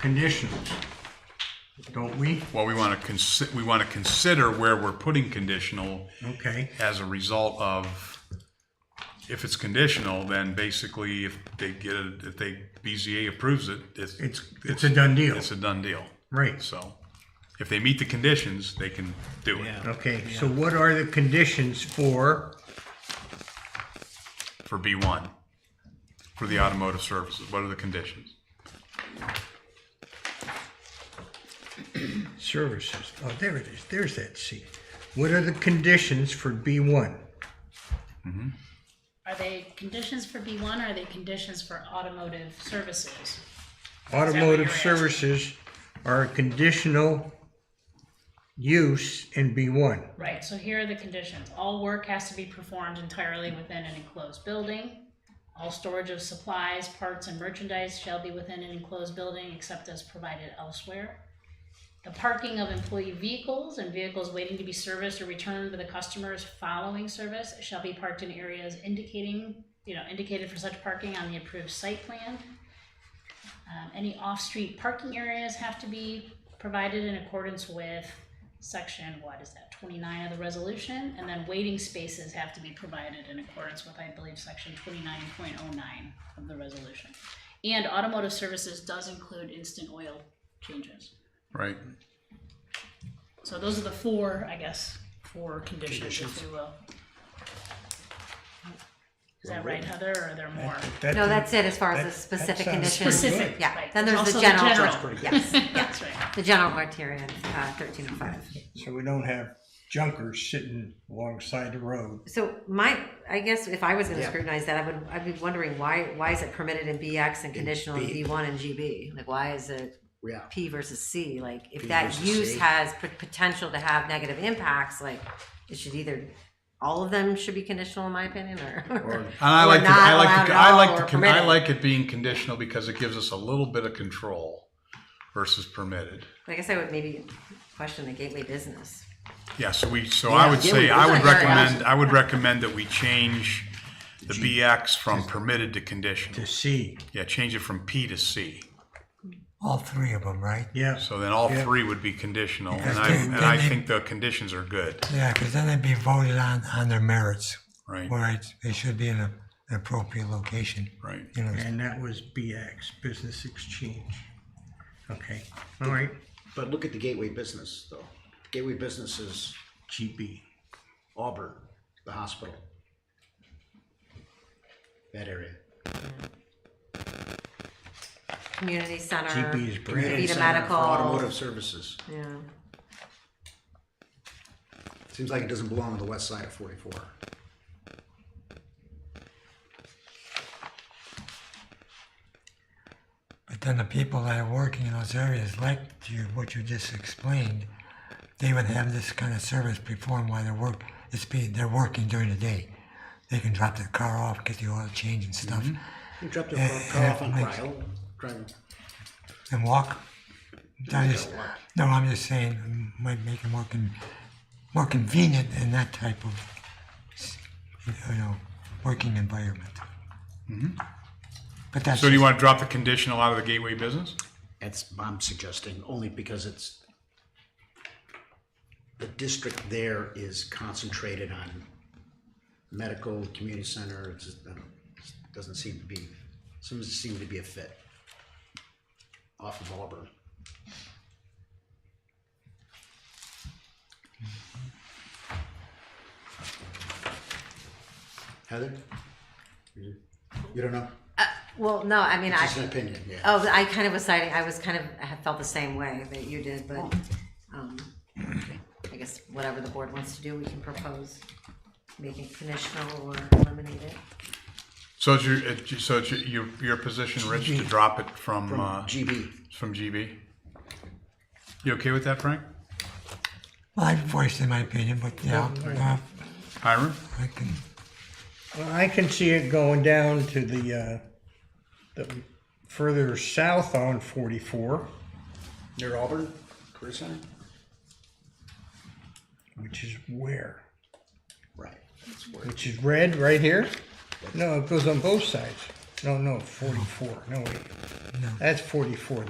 conditions, don't we? Well, we want to consi, we want to consider where we're putting conditional Okay, as a result of, if it's conditional, then basically if they get it, if they, BZA approves it, it's, it's, it's a done deal, it's a done deal. right? So if they meet the conditions, they can do it Okay, so what are the conditions for, for B1, for the automotive services. What are the conditions? Services, oh, there it is, there's that C. What are the conditions for B1? Are they conditions for B one, or are they conditions for automotive services? Automotive you're asking? services are a conditional use in B1. Right, so here are the conditions. All work has to be performed entirely within an enclosed building. All storage of supplies, parts, and merchandise shall be within an enclosed building except as provided elsewhere. The parking of employee vehicles and vehicles waiting to be serviced or returned to the customers following service shall be parked in areas indicating, you know, indicated for such parking on the approved site plan. Um, any off-street parking areas have to be provided in accordance with section, what is that, twenty-nine of the resolution? And then waiting spaces have to be provided in accordance with, I believe, section twenty-nine point oh nine of the resolution. And automotive services does include instant oil changes. Right? So those are the four, I guess, four conditions, if you will. Is that right, Heather, or are there more? No, that's it as far as the specific sounds conditions. Specific, Yeah, right. then there's Also the the general. general. That's pretty Yes, yeah, That's right. the general criteria, uh, thirteen oh five. So we don't have junkers sitting alongside the road. So my, I guess if I was gonna scrutinize that, I would, I'd be wondering why, why is it permitted in BX and conditional in B. B1 and GB? Like, why is it Yeah. P versus C? Like, if P that versus use C. has p- potential to have negative impacts, like, it should either, all of them should be conditional in my opinion, or? And I or like, the- not I like, allowed the- at I all like, or the con- I permitted. like it being conditional because it gives us a little bit of control versus permitted. I guess I would maybe question the gateway business. Yeah, so we, so I would yeah, say, we- I would yeah, yeah. recommend, I would recommend that we change the BX from permitted to conditional. To see, Yeah, change it from P to C. All three of them, right? yeah, So then all three would be conditional, and I, then- and I then they- think the conditions are good, Yeah, because then they'd be voted on on their merits, right? where it, it should be in a, an appropriate location. Right. You know, and that was BX, Business Exchange. Okay, all right, But look at the gateway business though. Gateway business is GB. Auburn, the hospital. That area. Community center. GB is brand. Be the Center for medical- Automotive services. Yeah. Seems like it doesn't belong on the west side of forty-four. but then the people that are working in those areas, like you, what you just explained, they would have this kind of service performed while they're work. It's being they're working during the day. They can drop their car off, get the oil change and stuff, Mm-hmm. You dropped your car- car off on Cryle, driving. and walk. I just, no, I'm just saying, um, might make it more con, more convenient in that type of, s- you know, working environment. But that's. So do you just- want to drop the conditional out of the gateway business? That's, I'm suggesting, only because it's, the district there is concentrated on medical, community center, it's just, I don't, it doesn't seem to be, doesn't seem to be a fit off of Auburn. Heather? You you don't know? Uh, Well, no, I mean, I, Just an opinion, yeah. Oh, I kind of was citing, I was kind of, I felt the same way that you did, but, um, I guess whatever the board wants to do, we can propose making it conditional or eliminate it. So it's your, it's your- so it's your- your, your position, Rich, to drop it from, uh, GB. from GB? You okay with that, Frank? Well, I voiced in my opinion, but yeah, uh, Hiram? I can, Well, I can see it going down to the, uh, the further south on forty-four, Near Auburn, Career Center? which is where? Right. That's where- Which is red right here? No, it goes on both sides. No, no, forty-four, no wait. That's forty-four,